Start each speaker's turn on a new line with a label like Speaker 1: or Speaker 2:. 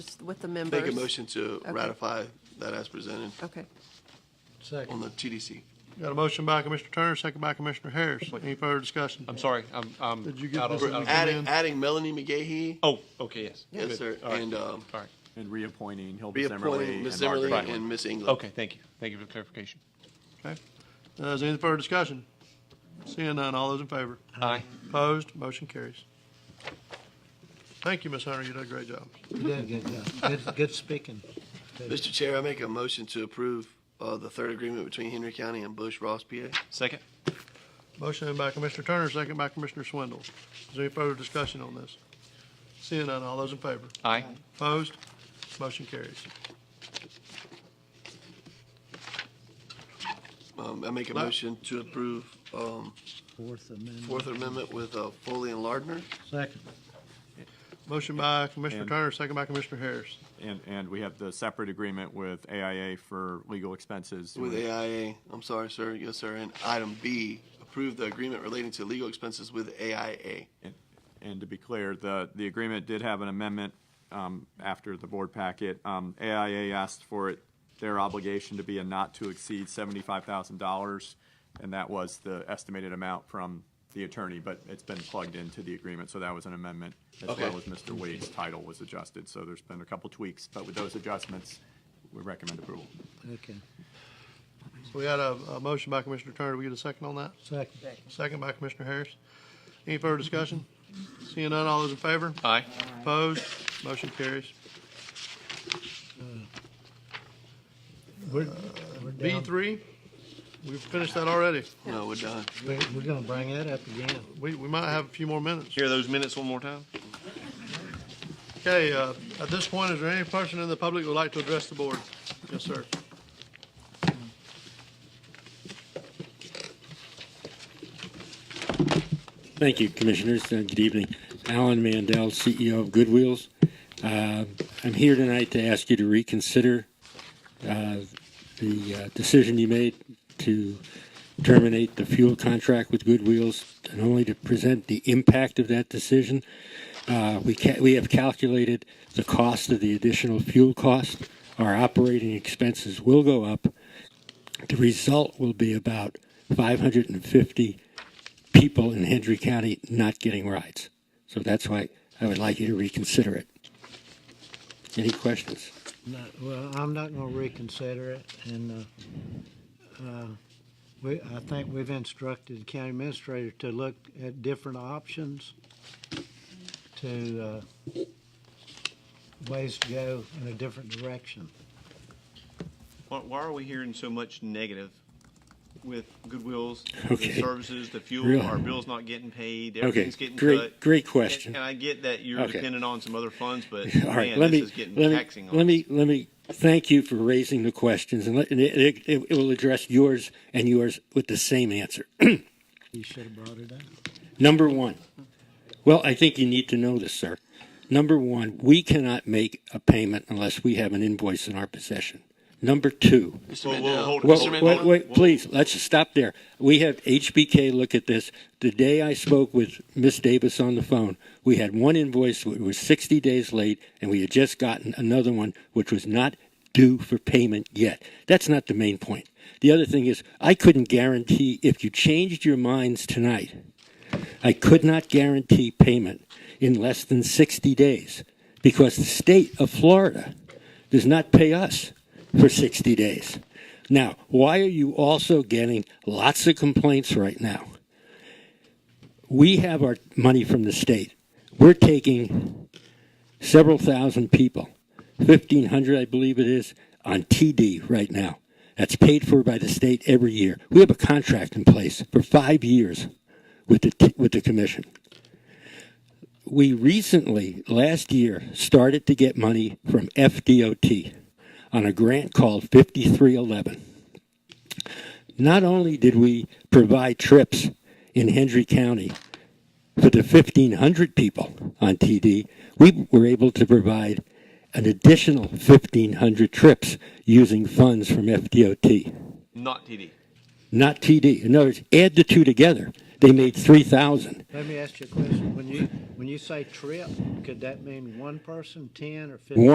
Speaker 1: with the members.
Speaker 2: Make a motion to ratify that as presented
Speaker 1: Okay.
Speaker 2: on
Speaker 3: Second.
Speaker 2: the TDC.
Speaker 4: Got a motion by Commissioner Turner, second by Commissioner Harris. Any further discussion?
Speaker 5: I'm sorry, I'm, I'm.
Speaker 4: Did you get
Speaker 5: out of-
Speaker 4: this in
Speaker 5: out of-
Speaker 4: the-
Speaker 2: Adding, adding Melanie McGahee,
Speaker 5: Oh, okay, yes.
Speaker 2: yes,
Speaker 5: Good.
Speaker 2: sir,
Speaker 5: All right.
Speaker 2: and um,
Speaker 5: All right,
Speaker 6: And reappointing Hilda Zimmerly
Speaker 2: reappointing
Speaker 6: and
Speaker 2: Ms. Zimmerly
Speaker 6: Margaret
Speaker 2: and Ms. England.
Speaker 5: okay, thank you. Thank you for the clarification.
Speaker 4: Okay. Uh, Is there any further discussion? Seeing none, all those in favor?
Speaker 5: Aye.
Speaker 4: Opposed, motion carries. Thank you, Ms. Hunter, you did a great job.
Speaker 3: You done good, uh, good, good speaking.
Speaker 2: Mr. Chair, I make a motion to approve uh, the third agreement between Henry County and Bush Ross, PA.
Speaker 5: Second?
Speaker 4: Motion by Commissioner Turner, second by Commissioner Swindle. Is there any further discussion on this? Seeing none, all those in favor?
Speaker 5: Aye.
Speaker 4: Opposed? Motion carries.
Speaker 2: Um, I make a
Speaker 4: No.
Speaker 2: motion to approve um,
Speaker 3: Fourth Amendment.
Speaker 2: Fourth Amendment with uh, Foley and Lardner.
Speaker 3: Second.
Speaker 4: Motion by Commissioner
Speaker 6: And-
Speaker 4: Turner, second by Commissioner Harris.
Speaker 6: And, and we have the separate agreement with AIA for legal expenses.
Speaker 2: With AIA, I'm sorry, sir, yes, sir, and item B, approve the agreement relating to legal expenses with AIA.
Speaker 6: And- And to be clear, the, the agreement did have an amendment um, after the board packet. Um, AIA asked for it, their obligation to be a not to exceed $75,000, and that was the estimated amount from the attorney, but it's been plugged into the agreement, so that was an amendment. As
Speaker 2: Okay.
Speaker 6: well as Mr. Wade's title was adjusted, so there's been a couple tweaks, but with those adjustments, we recommend approval.
Speaker 3: Okay.
Speaker 4: So we had a, a motion by Commissioner Turner. Did we get a second on that?
Speaker 3: Second.
Speaker 4: Second by Commissioner Harris. Any further discussion? Seeing none, all those in favor?
Speaker 5: Aye.
Speaker 4: Opposed? Motion carries.
Speaker 3: We're, we're
Speaker 4: B
Speaker 3: down.
Speaker 4: three, we've finished that already.
Speaker 2: No, we're done.
Speaker 3: We're, we're gonna bring that up again.
Speaker 4: We, we might have a few more minutes.
Speaker 5: Hear those minutes one more time?
Speaker 4: Okay, uh, at this point, is there any person in the public who would like to address the board? Yes, sir.
Speaker 7: Thank you, Commissioners. Uh, Good evening. Alan Mandel, CEO of Goodwheels. Uh, I'm here tonight to ask you to reconsider uh, the uh, decision you made to terminate the fuel contract with Goodwheels and only to present the impact of that decision. Uh, We ca- we have calculated the cost of the additional fuel cost. Our operating expenses will go up. The result will be about 550 people in Hendry County not getting rides. So that's why I would like you to reconsider it. Any questions?
Speaker 3: Not, well, I'm not gonna reconsider it and, uh, uh, we, I think we've instructed the county administrator to look at different options to, uh, ways to go in a different direction.
Speaker 8: Why, why are we hearing so much negative with Goodwill's,
Speaker 7: Okay.
Speaker 8: the services, the fuel,
Speaker 7: Really?
Speaker 8: our bills not getting paid,
Speaker 7: Okay,
Speaker 8: everything's getting
Speaker 7: great-
Speaker 8: cut?
Speaker 7: great
Speaker 8: And-
Speaker 7: question.
Speaker 8: And, I get that you're
Speaker 7: Okay.
Speaker 8: dependent on some other funds, but
Speaker 7: All right,
Speaker 8: man,
Speaker 7: let
Speaker 8: this
Speaker 7: me
Speaker 8: is getting
Speaker 7: let
Speaker 8: taxing
Speaker 7: me
Speaker 8: on
Speaker 7: let
Speaker 8: us.
Speaker 7: me let me thank you for raising the questions, and, let, and it, it, it will address yours and yours with the same answer.
Speaker 3: You should have brought it up.
Speaker 7: Number one. Well, I think you need to know this, sir. Number one, we cannot make a payment unless we have an invoice in our possession. Number two,
Speaker 2: Mr.
Speaker 8: Whoa, whoa,
Speaker 2: Mandel.
Speaker 8: hold it.
Speaker 7: Well, wait,
Speaker 8: Mr. Mandel,
Speaker 7: wait, wait,
Speaker 8: whoa.
Speaker 7: please, let's stop there. We have HBK look at this. The day I spoke with Miss Davis on the phone, we had one invoice which was 60 days late, and we had just gotten another one which was not due for payment yet. That's not the main point. The other thing is, I couldn't guarantee if you changed your minds tonight, I could not guarantee payment in less than 60 days because the state of Florida does not pay us for 60 days. Now, why are you also getting lots of complaints right now? We have our money from the state. We're taking several thousand people, 1,500, I believe it is, on TD right now. That's paid for by the state every year. We have a contract in place for five years with the, with the commission. We recently, last year, started to get money from FDOT on a grant called 5311. Not only did we provide trips in Hendry County for the 1,500 people on TD, we were able to provide an additional 1,500 trips using funds from FDOT
Speaker 8: Not TD.
Speaker 7: not TD. In other words, add the two together, they made three thousand.
Speaker 3: Let me ask you a question. When you, when you say trip, could that mean one person, ten or fifteen?
Speaker 7: One